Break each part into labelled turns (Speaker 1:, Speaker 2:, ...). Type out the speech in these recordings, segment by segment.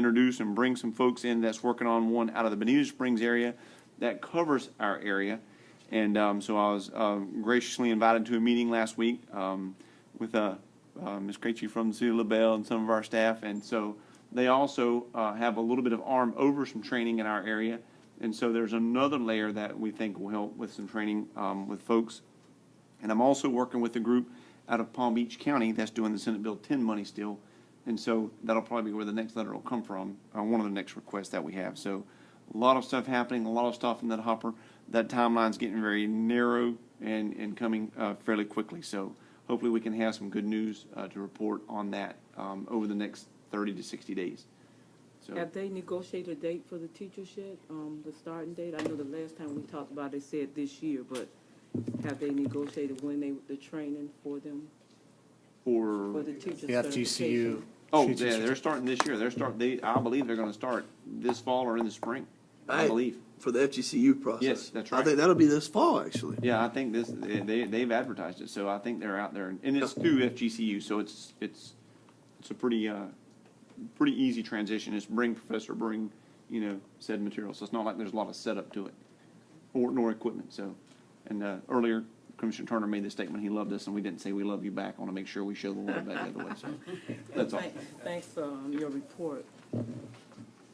Speaker 1: introduce and bring some folks in that's working on one out of the Benita Springs area that covers our area. And um, so I was um, graciously invited to a meeting last week um, with uh, uh, Ms. Krejci from the City of LaBelle and some of our staff. And so they also uh, have a little bit of arm over some training in our area. And so there's another layer that we think will help with some training um, with folks and I'm also working with a group out of Palm Beach County that's doing the Senate Bill 10 money still. And so that'll probably be where the next letter will come from, uh, one of the next requests that we have. So a lot of stuff happening, a lot of stuff in that hopper. That timeline's getting very narrow and, and coming uh, fairly quickly. So hopefully we can have some good news uh, to report on that um, over the next 30 to 60 days. So
Speaker 2: Have they negotiated a date for the teachers yet, um, the starting date? I know the last time we talked about, it, they said this year, but have they negotiated when they, the training for them, for
Speaker 1: for,
Speaker 2: the teacher
Speaker 3: The FGCU.
Speaker 2: certification?
Speaker 1: oh,
Speaker 3: She's
Speaker 1: yeah,
Speaker 3: just-
Speaker 1: they're starting this year. They're start, they, I believe they're going to start this fall or in the spring, I
Speaker 4: Right.
Speaker 1: believe.
Speaker 4: for the FGCU process.
Speaker 1: Yes, that's
Speaker 4: I
Speaker 1: right.
Speaker 4: think that'll be this fall, actually.
Speaker 1: Yeah, I think this, they, they've advertised it, so I think they're out there, and it's through FGCU, so it's, it's, it's a pretty, uh, pretty easy transition, it's bring professor, bring, you know, said material, so it's not like there's a lot of setup to it, or, nor equipment, so. And, uh, earlier Commissioner Turner made the statement, he loved us, and we didn't say we love you back, I wanna make sure we show the love back the other way, so, that's all.
Speaker 2: Thank- Thanks for um, your report,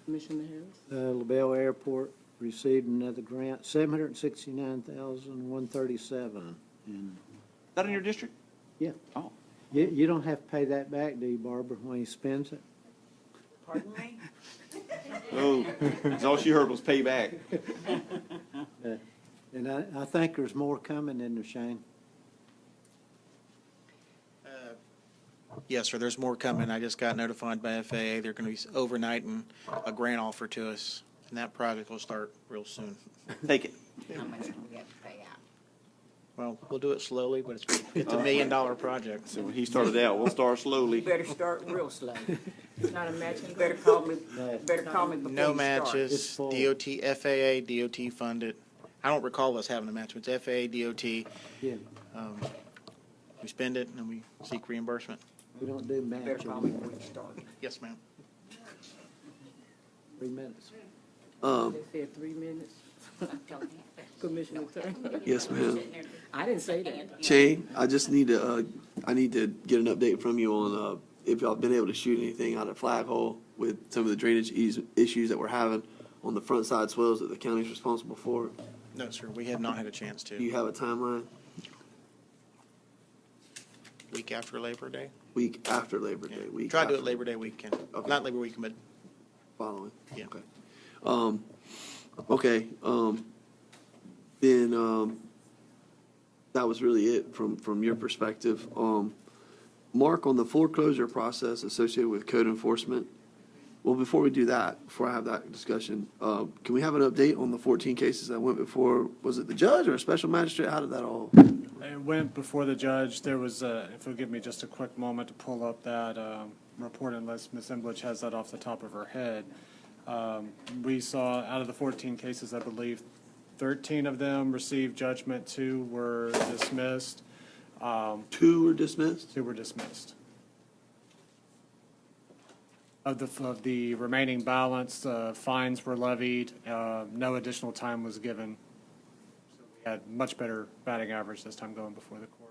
Speaker 2: Commissioner Harris.
Speaker 5: Uh, LaBelle Airport received another grant, seven hundred and sixty-nine thousand, one thirty-seven. And,
Speaker 1: That in your district?
Speaker 5: yeah,
Speaker 1: Oh,
Speaker 5: you, you don't have to pay that back, do you, Barbara, when he spends it?
Speaker 2: Pardon me?
Speaker 1: oh, that's all she heard was pay back.
Speaker 5: Uh, And I, I think there's more coming in there, Shane.
Speaker 6: Yes, sir, there's more coming. I just got notified by FAA. They're going to be overnighting a grant offer to us, and that project will start real soon.
Speaker 1: Take it.
Speaker 7: How much do we have to pay out?
Speaker 6: Well, we'll do it slowly, but it's, it's a million-dollar project.
Speaker 1: So when he started out, we'll start slowly.
Speaker 7: You better start real slow.
Speaker 2: It's not a matching
Speaker 7: You better call me, better call me before you
Speaker 6: No
Speaker 7: start.
Speaker 6: matches,
Speaker 5: It's full.
Speaker 6: DOT, FAA, DOT funded. I don't recall us having a match, but it's FAA, DOT.
Speaker 5: Yeah,
Speaker 6: Um, We spend it, and then we seek reimbursement.
Speaker 5: we don't do
Speaker 7: You
Speaker 5: match,
Speaker 7: Better call me before you start.
Speaker 6: Yes, ma'am.
Speaker 5: three minutes.
Speaker 4: Um,
Speaker 2: They said three minutes, Commissioner Turner.
Speaker 4: yes, ma'am.
Speaker 2: I didn't say that.
Speaker 4: Shane, I just need to, uh, I need to get an update from you on, uh, if y'all been able to shoot anything out of Flaghole with some of the drainage eas- issues that we're having on the front side swells that the county's responsible for.
Speaker 6: No, sir, we have not had a chance
Speaker 4: Do you
Speaker 6: to.
Speaker 4: have a timeline?
Speaker 6: Week after Labor Day?
Speaker 4: Week after Labor
Speaker 6: Yeah.
Speaker 4: Day, week.
Speaker 6: Try to do it
Speaker 4: after-
Speaker 6: Labor Day weekend.
Speaker 4: Okay.
Speaker 6: Not Labor weekend, but
Speaker 4: Following.
Speaker 6: Yeah.
Speaker 4: Okay. Um, okay, um, then, um, that was really it from, from your perspective. Um, Mark, on the foreclosure process associated with code enforcement, well, before we do that, before I have that discussion, uh, can we have an update on the fourteen cases that went before, was it the judge or a special magistrate? How did that all?
Speaker 8: It went before the judge. There was, a- if you'll give me just a quick moment to pull up that um, report unless Ms. Emblich has that off the top of her head. Um, We saw, out of the 14 cases, I believe, 13 of them received judgment, two were dismissed,
Speaker 4: Two were dismissed?
Speaker 8: two were dismissed. Of the, of the remaining balance, uh, fines were levied, uh, no additional time was given. So We had much better batting average this time going before the court.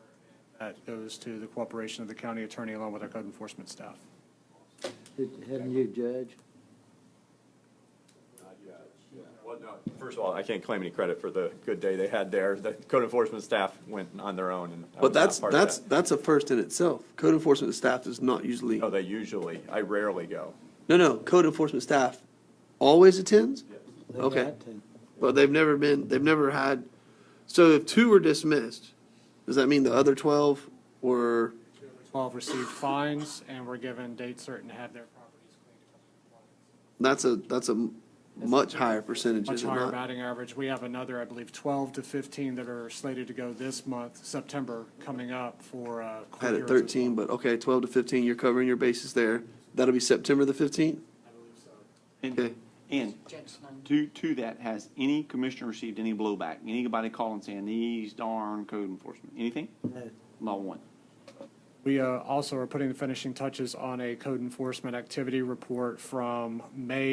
Speaker 8: That goes to the cooperation of the county attorney along with our code enforcement staff.
Speaker 5: Did- Hadn't you, Judge?
Speaker 9: Well, no, first of all, I can't claim any credit for the good day they had there. The code enforcement staff went on their own and.
Speaker 4: But
Speaker 9: I was not
Speaker 4: that's,
Speaker 9: part of
Speaker 4: that's,
Speaker 9: that.
Speaker 4: that's a first in itself. Code enforcement staff does not usually.
Speaker 9: No, they usually, I rarely go.
Speaker 4: No, no, code enforcement staff always attends,
Speaker 5: They
Speaker 4: Okay.
Speaker 5: got to.
Speaker 4: but they've never been, they've never had, so if two were dismissed, does that mean the other twelve were,
Speaker 8: 12 received fines and were given dates certain to have their properties cleaned.
Speaker 4: that's a, that's a much higher percentage,
Speaker 8: Much
Speaker 4: is it
Speaker 8: higher
Speaker 4: not?
Speaker 8: batting average. We have another, I believe, 12 to 15 that are slated to go this month, September, coming up for. uh, court
Speaker 4: Had
Speaker 8: hearings
Speaker 4: it
Speaker 8: as well.
Speaker 4: thirteen, but okay, twelve to fifteen, you're covering your bases there. That'll be September the fifteenth?
Speaker 1: And,
Speaker 4: Okay.
Speaker 1: and
Speaker 7: Judge Sloan.
Speaker 1: To, to that, has any commissioner received any blowback? Anybody calling saying these darn code enforcement? Anything?
Speaker 5: No.
Speaker 1: Not one.
Speaker 8: We uh, also are putting the finishing touches on a code enforcement activity report from May